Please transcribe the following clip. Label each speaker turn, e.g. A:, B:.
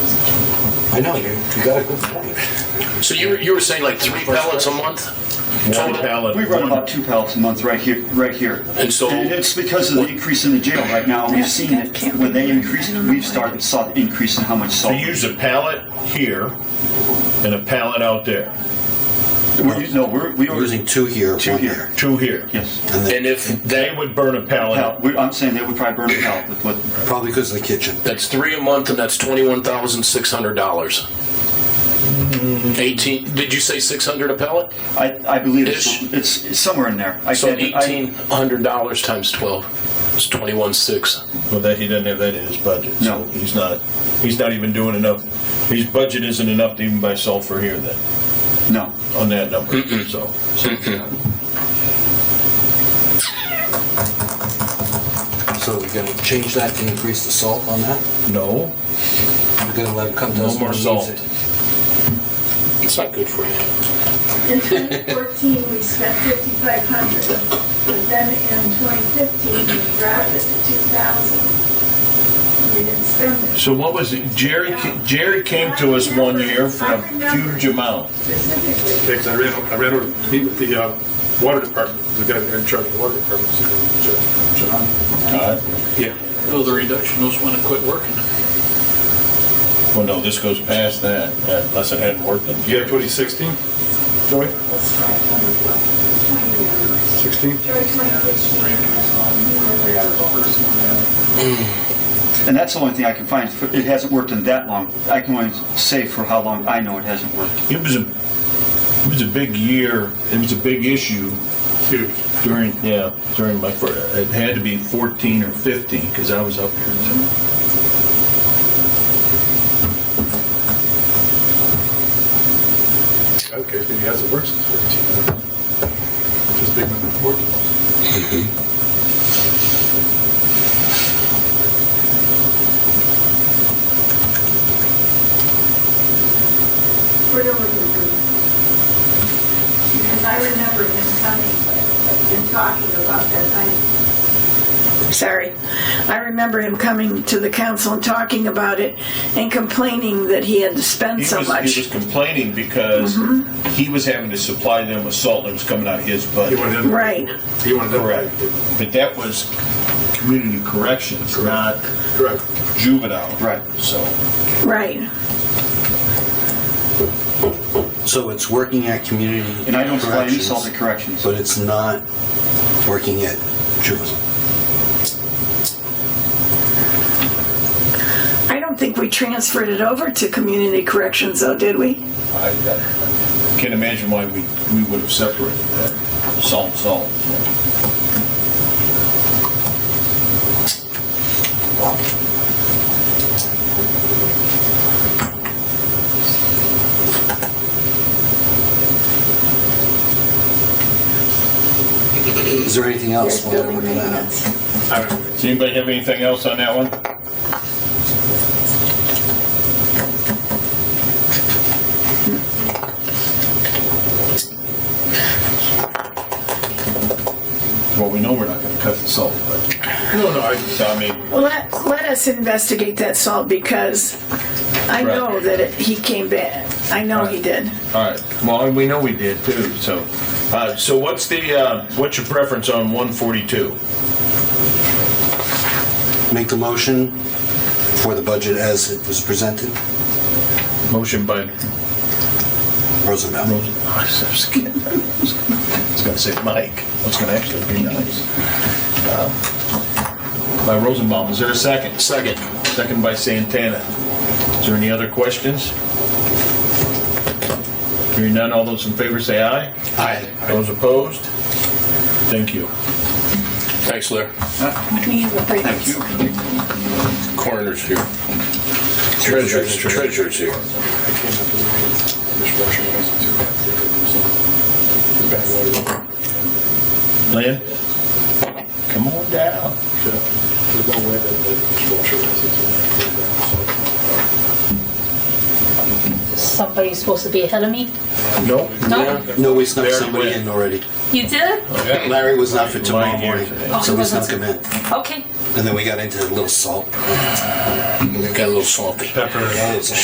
A: I know, you, you got a good point.
B: So you were, you were saying like three pellets a month?
C: One
B: Total?
C: pallet.
D: We run about two pallets a month right here, right here.
B: And so-
D: it's because of the increase in the jail right now. We've seen it when they increased. We've started saw the increase in how much
C: So
D: salt.
C: you use a pallet here and a pallet out there,
D: we're, using- no, we're we
A: We're
D: were
A: Using two here,
D: Two
A: one
D: here.
A: there.
C: two here.
D: Yes.
A: And then
B: And if
C: They
B: that,
C: would burn a pallet
D: Now,
C: out.
D: we I'm saying they would probably burn a pallet with what
A: probably because of the kitchen.
B: that's three a month and that's twenty-one thousand six hundred dollars. Eighteen, did you say six hundred a pellet?
D: I, I believe it's,
B: Ish.
D: it's, it's somewhere in there. I
B: So
D: can't- I-
B: eighteen hundred dollars times twelve is twenty-one six.
C: Well, that he doesn't have that in his budget.
D: No.
C: So he's not. He's not even doing enough. His budget isn't enough to even buy sulfur here then
D: no.
C: on that number. So, so
A: So we're gonna change that and increase the salt on that?
C: no.
A: We're gonna let it come to
C: No
A: us
C: more
A: when it needs
C: salt.
A: it.
B: It's not good for you.
E: In 2014, we spent 5,500, but then in 2015, we dropped it to 2,000. We didn't spend it
C: So what was it? Jerry? Jerry came to us one year for a huge amount.
E: specifically.
F: because I ran, I ran over to meet with the uh, water department, the guy in charge of the water department, so, Jo- John.
C: Todd?
F: Yeah.
G: Oh, the reductionists want to quit working.
C: Well, no, this goes past that unless it hadn't worked in
F: Yeah, 2016, Joey? 16?
E: Joy 2015.
D: And that's the only thing I can find. It hasn't worked in that long. I can only say for how long I know it hasn't worked.
C: It was a, it was a big year, it was a big issue
F: Huge.
C: during, yeah, during my, fir- it had to be 14 or 15, because I was up here. so.
F: Okay, maybe it hasn't worked since 14. Just big number 14.
E: Where do we go? Because I remember him coming and talking about that. I-
H: Sorry. I remember him coming to the council and talking about it and complaining that he had to spend
C: He
H: so
C: was-
H: much. Mm-hmm.
C: He was complaining because he was having to supply them with salt that was coming out of his
F: He
C: budget.
F: wanted in.
H: Right.
F: He wanted in.
C: Correct. But that was community corrections, not
F: Correct.
C: juvenile.
D: Right.
C: So,
H: Right.
A: So it's working at community.
D: And I don't supply any
A: corrections,
D: salt at corrections.
A: But it's not working at juvenile.
H: I don't think we transferred it over to community corrections though, did we?
C: I I can't imagine why we, we would have separated that, salt, salt.
A: Is there anything else? while we're looking at it?
F: I don't know.
C: Does anybody have anything else on that one? Well, we know we're not gonna cut the salt, but,
F: No, no, I,
C: so I mean,
H: Let, let us investigate that salt because I know
C: Right.
H: that it, he came back. I know he did.
C: all right, well, and we know we did too, so. Uh, so what's the, uh, what's your preference on one forty-two?
A: Make the motion for the budget as it was presented.
C: Motion by
A: Rosenbaum.
C: Rosen, I was gonna- I was gonna say Mike, I was gonna actually be nice. Uh, By Rosenbaum, is there a second?
B: Second.
C: Second by Santana. Is there any other questions? Hearing none, all those in favor say aye.
B: Aye.
C: Those opposed? Thank you.
B: Thanks, Larry.
H: Can you have a break?
B: Coroner's here. Treasurer's, treasurer's here.
F: I came up with a dishwasher when I was two. Bad water.
C: Lynn? Come on down.
F: There's no way that the dishwasher was into that.
I: Somebody's supposed to be ahead of me?
C: Nope.
I: No?
A: No, we snuck
C: They already
A: somebody
C: went.
A: in already.
I: You did?
A: Larry was not for tomorrow
C: Mine here
A: morning,
C: today.
A: so
I: Oh,
A: we
I: he
A: snuck
I: wasn't.
A: him in.
I: Okay.
A: And then we got into a little salt.
B: Got a little salty.
A: Yeah, it's-